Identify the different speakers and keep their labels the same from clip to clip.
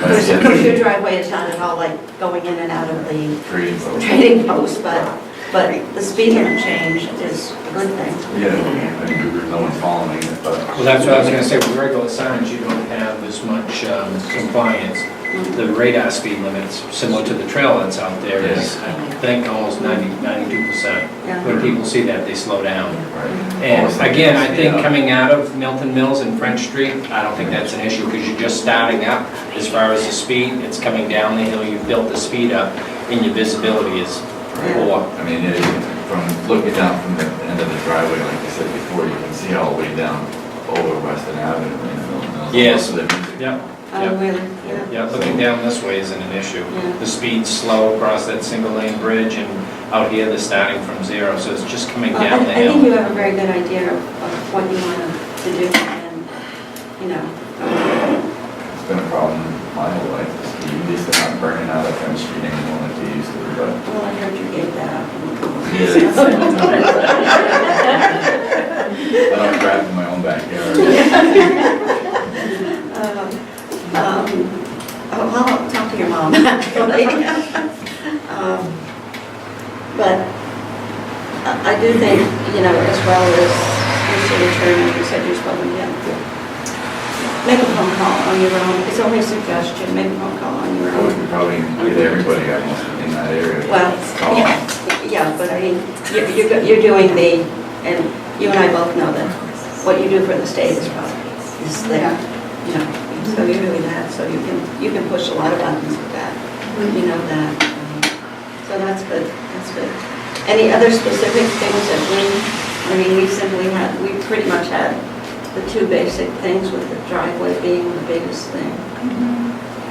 Speaker 1: There's
Speaker 2: yeah.
Speaker 1: your driveway is not at all like going in and out of the
Speaker 2: Trading post.
Speaker 1: trading post, but, but the speed limit change is a good thing.
Speaker 2: Yeah, and no one's following it, but.
Speaker 3: Well, that's what I was gonna say, with regular signs, you don't have as much um, compliance. The radar speed limits, similar to the trail that's out there, is, I think, almost 90, 92%.
Speaker 1: Yeah.
Speaker 3: When people see that, they slow down.
Speaker 2: Right.
Speaker 3: And
Speaker 2: Almost like
Speaker 3: again, I
Speaker 2: speed
Speaker 3: think
Speaker 2: up.
Speaker 3: coming out of Milton Mills and French Street, I don't think that's an issue, because you're just starting up as far as the speed, it's coming down the hill, you've built the speed up, and your visibility is poor.
Speaker 2: I mean, it- from looking down from the end of the driveway, like I said before, you can see all the way down over Weston Avenue and Milton Mills.
Speaker 3: Yes.
Speaker 2: Most of the-
Speaker 3: Yep,
Speaker 1: Oh,
Speaker 3: yep.
Speaker 1: really? Yeah.
Speaker 3: Yeah, looking down this way isn't an issue.
Speaker 1: Yeah.
Speaker 3: The speed's slow across that single lane bridge and out here they're starting from zero, so it's just coming
Speaker 1: Well, I
Speaker 3: down the
Speaker 1: I think
Speaker 3: hill.
Speaker 1: you have a very good idea of- of what you want to do and, you know,
Speaker 2: It's been a problem my whole life, the speed, at least they're not burning out of French Street anymore like they used to, but.
Speaker 1: well, I heard you gave that up.
Speaker 2: I don't drive in my own backyard.
Speaker 1: Um, um, Oh, I'll talk to your mom actually. Um, But I I do think, you know, as well as your city attorney, you said you're supposed to get, make a phone call on your own. It's only a suggestion, make a phone call on your
Speaker 2: I
Speaker 1: own.
Speaker 2: would probably get everybody I know in that area.
Speaker 1: Well,
Speaker 2: Call them.
Speaker 1: yeah, yeah, but I mean, you- you're, go- you're doing the, and you and I both know that what you do for the state is probably, is there, you know, so you're doing that, so you can, you can push a lot of buttons with that, you know that. So that's good, that's good. Any other specific things that we, I mean, we simply had, we pretty much had the two basic things with the driveway being the biggest thing.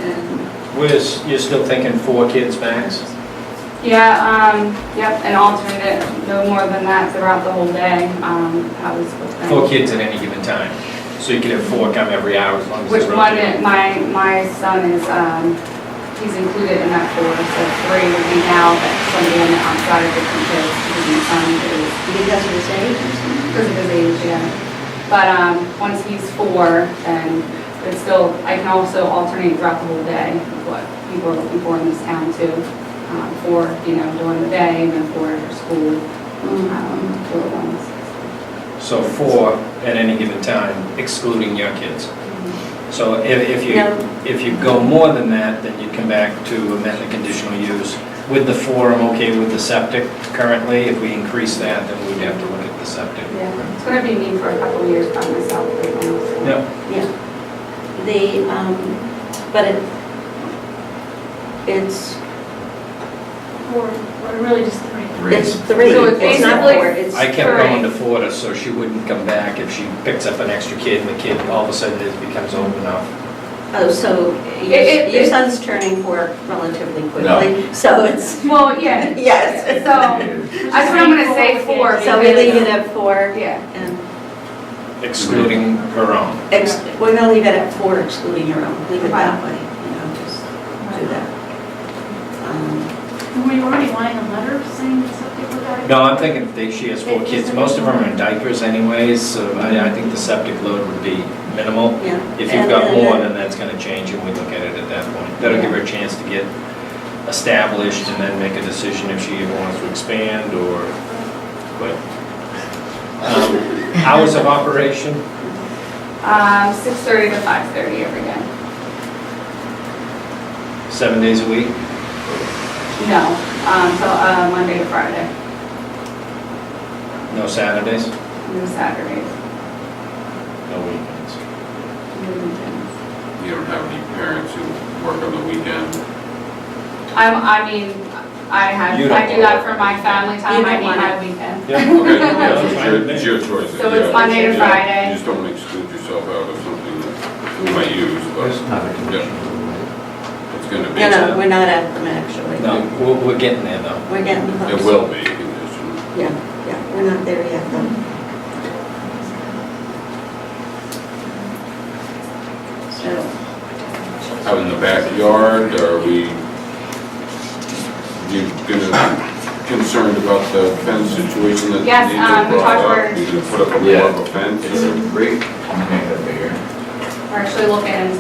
Speaker 1: And,
Speaker 3: Where's, you're still thinking four kids max?
Speaker 4: Yeah, um, yep, an alternate, no more than that throughout the whole day, um, how was supposed to.
Speaker 3: Four kids at any given time. So you could have four come every hour as long as
Speaker 4: Which
Speaker 3: they're
Speaker 4: one,
Speaker 3: rotating.
Speaker 4: my, my son is, um, he's included in that four, so three would be now, but somebody on the outside of the kids, because my son is,
Speaker 1: because of his age or something?
Speaker 4: because of his age, yeah. But, um, once he's four, then it's still, I can also alternate throughout the whole day, is what people are looking for in this town too. Um, for, you know, during the day and then for after school. um, for the ones.
Speaker 3: So four at any given time excluding your kids.
Speaker 1: Mm-hmm.
Speaker 3: So if, if you,
Speaker 1: No.
Speaker 3: if you go more than that, then you come back to amend the conditional use. With the four, I'm okay with the septic currently. If we increase that, then we'd have to look at the septic.
Speaker 4: Yeah, it's gonna be me for a couple of years by myself right now. so.
Speaker 3: Yep.
Speaker 1: Yeah. The, um, but it, it's,
Speaker 5: Or, or really just three.
Speaker 1: it's
Speaker 2: Three.
Speaker 1: three,
Speaker 4: So it's
Speaker 1: it's not
Speaker 4: basically-
Speaker 1: four, it's
Speaker 3: I kept
Speaker 4: Correct.
Speaker 3: going to Florida, so she wouldn't come back if she picks up an extra kid, and the kid, all of a sudden, it becomes old enough.
Speaker 1: Oh, so your
Speaker 4: It- it-
Speaker 1: your
Speaker 4: it-
Speaker 1: son's turning four relatively
Speaker 2: No.
Speaker 1: quickly, so it's,
Speaker 4: Well, yeah,
Speaker 1: yes.
Speaker 4: so, I just I'm gonna say four.
Speaker 1: So we leave it at four
Speaker 4: Yeah,
Speaker 1: and
Speaker 3: Excluding her own.
Speaker 1: ex, we're gonna leave it at four excluding your own, leave it that way, you know, just do that. Um,
Speaker 5: Were you already wanting a letter saying that something about it?
Speaker 3: No, I'm thinking if they- she has four kids, most of them are in diapers anyways, so I, I think the septic load would be minimal.
Speaker 1: Yeah.
Speaker 3: If you've
Speaker 1: And-
Speaker 3: got
Speaker 1: and
Speaker 3: more,
Speaker 1: then-
Speaker 3: then that's gonna change, and we look at it at that point. That'll give her a chance to get established and then make a decision if she even wants to expand or quit. Um, Hours of operation,
Speaker 4: um, six thirty to five thirty every day.
Speaker 3: seven days a week?
Speaker 4: No, um, so, uh, Monday to Friday,
Speaker 3: No Saturdays?
Speaker 4: no Saturdays,
Speaker 3: No weekends?
Speaker 4: no weekends.
Speaker 6: You don't have any parents who work on the weekend?
Speaker 4: I'm, I mean, I have,
Speaker 3: You
Speaker 4: I
Speaker 3: don't
Speaker 4: do that
Speaker 3: want
Speaker 4: for my family
Speaker 1: You
Speaker 4: time,
Speaker 1: don't
Speaker 4: I mean,
Speaker 1: want
Speaker 4: my weekend.
Speaker 3: Yeah.
Speaker 6: Okay,
Speaker 3: Yeah,
Speaker 6: yeah,
Speaker 3: that's
Speaker 6: it's
Speaker 3: fine
Speaker 6: your-
Speaker 3: with me.
Speaker 6: it's your choice.
Speaker 4: So it's
Speaker 6: yeah.
Speaker 4: Monday to
Speaker 6: Yeah,
Speaker 4: Friday.
Speaker 6: You just don't exclude yourself out of something that you might use, but
Speaker 2: There's not a
Speaker 6: yeah, it's gonna be.
Speaker 1: No, no, we're not at them actually.
Speaker 3: No, we're, we're getting there though.
Speaker 1: We're getting close.
Speaker 6: It will be a condition.
Speaker 1: Yeah, yeah, we're not there yet though. So,
Speaker 6: Out in the backyard, are we, you gonna, concerned about the fence situation that
Speaker 4: Yes,
Speaker 6: Nathan
Speaker 4: um, we
Speaker 6: brought
Speaker 4: talked
Speaker 6: up?
Speaker 4: where-
Speaker 6: You gonna put up a
Speaker 2: Yeah. Mm-hmm.
Speaker 6: wall of a fence?
Speaker 2: It's a break, I'm gonna make that bigger.
Speaker 4: We're actually looking